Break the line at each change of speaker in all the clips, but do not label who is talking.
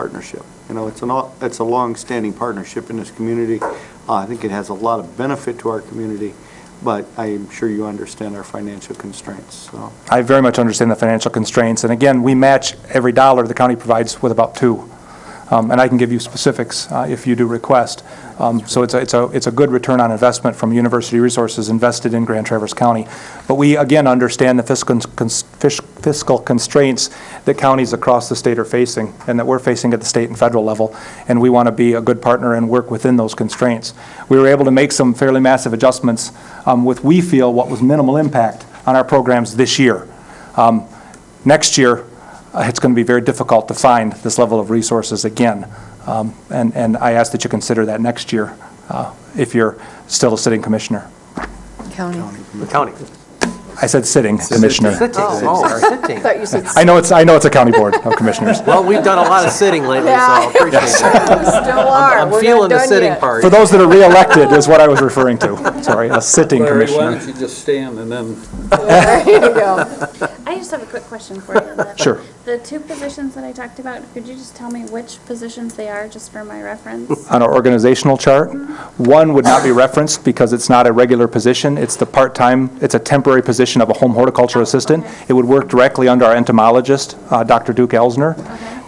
partnership. You know, it's an, all- it's a long-standing partnership in this community. Uh, I think it has a lot of benefit to our community, but I'm sure you understand our financial constraints, so.
I very much understand the financial constraints, and again, we match every dollar the county provides with about two, Um, and I can give you specifics uh, if you do request. Um, So it's a, it's a, it's a good return on investment from university resources invested in Grand Traverse County. But we, again, understand the fiscal cons- fish- fiscal constraints that counties across the state are facing, and that we're facing at the state and federal level, and we want to be a good partner and work within those constraints. We were able to make some fairly massive adjustments um, with, we feel, what was minimal impact on our programs this year. Um, Next year, uh, it's going to be very difficult to find this level of resources again, Um, and and I ask that you consider that next year, uh, if you're still a sitting commissioner.
County.
The county.
I said sitting commissioner.
Sitting, oh, sitting.
Thought you said
I know it's, I know it's a county board of commissioners.
Well, we've done a lot of sitting lately, so I appreciate it.
still are. We're
I'm
not
feeling the
done
sitting
yet.
part.
For those that are reelected is what I was referring to. Sorry, a sitting
Larry, why
commissioner.
don't you just stand and then
There you go.
I just have a quick question for you. on that.
Sure.
The two positions that I talked about, could you just tell me which positions they are, just for my reference?
on our organizational chart. One would not be referenced because it's not a regular position. It's the part-time, it's a temporary position of a home horticulture assistant.
okay.
It would work directly under our entomologist, uh, Dr. Duke Elsner.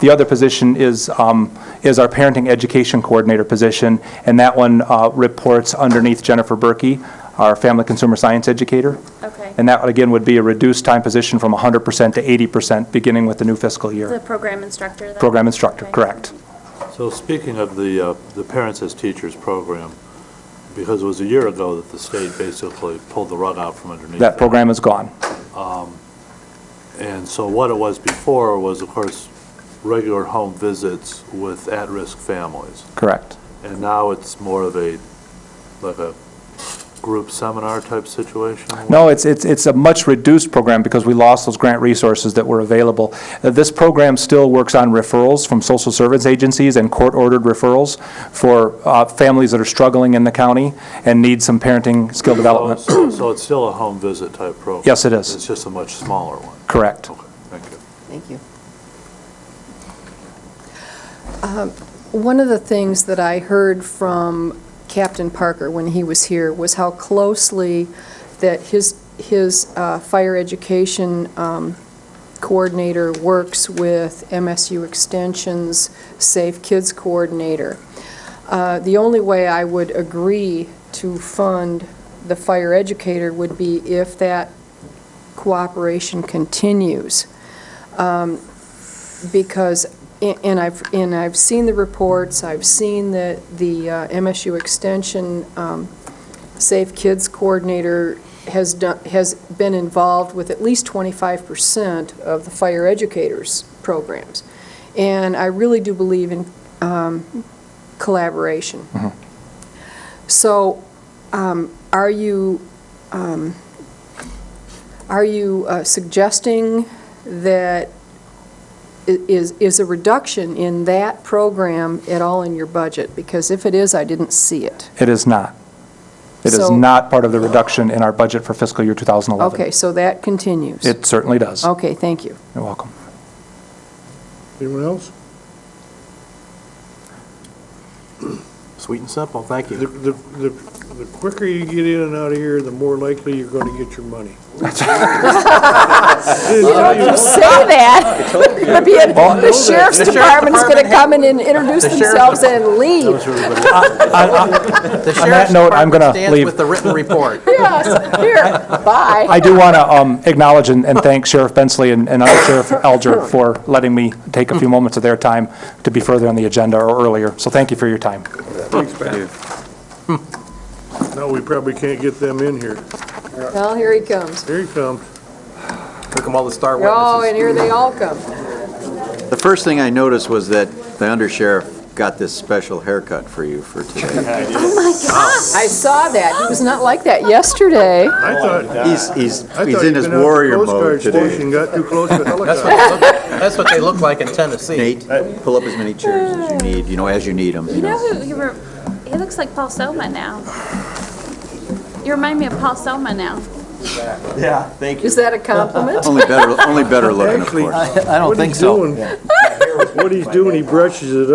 The other position is, um, is our parenting education coordinator position, and that one uh, reports underneath Jennifer Berkey, our family consumer science educator.
Okay.
And that, again, would be a reduced time position from 100% to 80%, beginning with the new fiscal
The
year.
program instructor? then?
Program instructor,
Okay.
correct.
So speaking of the, uh, the Parents as Teachers program, because it was a year ago that the state basically pulled the rug out from underneath.
That program is gone.
And so what it was before was, of course, regular home visits with at-risk families.
Correct.
And now it's more of a, like a group seminar type situation?
No, it's, it's, it's a much reduced program because we lost those grant resources that were available. Uh, This program still works on referrals from social service agencies and court-ordered referrals for uh, families that are struggling in the county and need some parenting skill
So-
development.
So so it's still a home visit type program?
Yes, it is.
It's just a much smaller one?
Correct.
Okay, thank you.
Thank you. Um, One of the things that I heard from Captain Parker when he was here was how closely that his, his uh, fire education um, coordinator works with MSU Extension's Safe Kids Coordinator. Uh, The only way I would agree to fund the fire educator would be if that cooperation continues because, and I've, and I've seen the reports, I've seen the, the uh, MSU Extension um, Safe Kids Coordinator has done, has been involved with at least 25% of the fire educators' programs. And I really do believe in um, collaboration. So um, are you, um, are you uh, suggesting that i- is, is a reduction in that program at all in your budget? Because if it is, I didn't see it.
It is not. It is
So-
not part of the reduction in our budget for fiscal year 2011.
Okay, so that continues.
It certainly does.
Okay, thank you.
You're welcome.
Anyone else?
Sweet and simple, thank
The,
you.
the, the the quicker you get in and out of here, the more likely you're gonna get your money.
Uh, Say that. It'd be- The sheriff's department's going to come in and introduce
The sheriff's
themselves and leave.
The
On that
sheriff's
note, I'm gonna
department stands
leave.
with the written report.
Yes, here, bye.
I do want to acknowledge and and thank Sheriff Bensley and and Under Sheriff Alger for letting me take a few moments of their time to be further on the agenda or earlier. So thank you for your time.
No, we probably can't get them in here.
Well, here he comes.
Here he comes.
Took them all the star
Oh,
witnesses.
and here they all come.
The first thing I noticed was that the undersheriff got this special haircut for you for today.
I saw that. He was not like that yesterday.
I thought,
He's, he's,
I
he's
thought you'd
in his
been out to
warrior
Coast
mode
Guard
today.
station, got too close to the
That's
helicopter.
what they look, that's what they look like in Tennessee.
Nate, pull up as many chairs as you need, you know, as you need them, you
You know
know.
who, you were, he looks like Paul Soma now. You remind me of Paul Soma now.
Yeah, thank
Is that a compliment?
Only better, only better looking, of
Actually,
course.
I don't
What
think
he's
so.
doing, what he's doing, he brushes it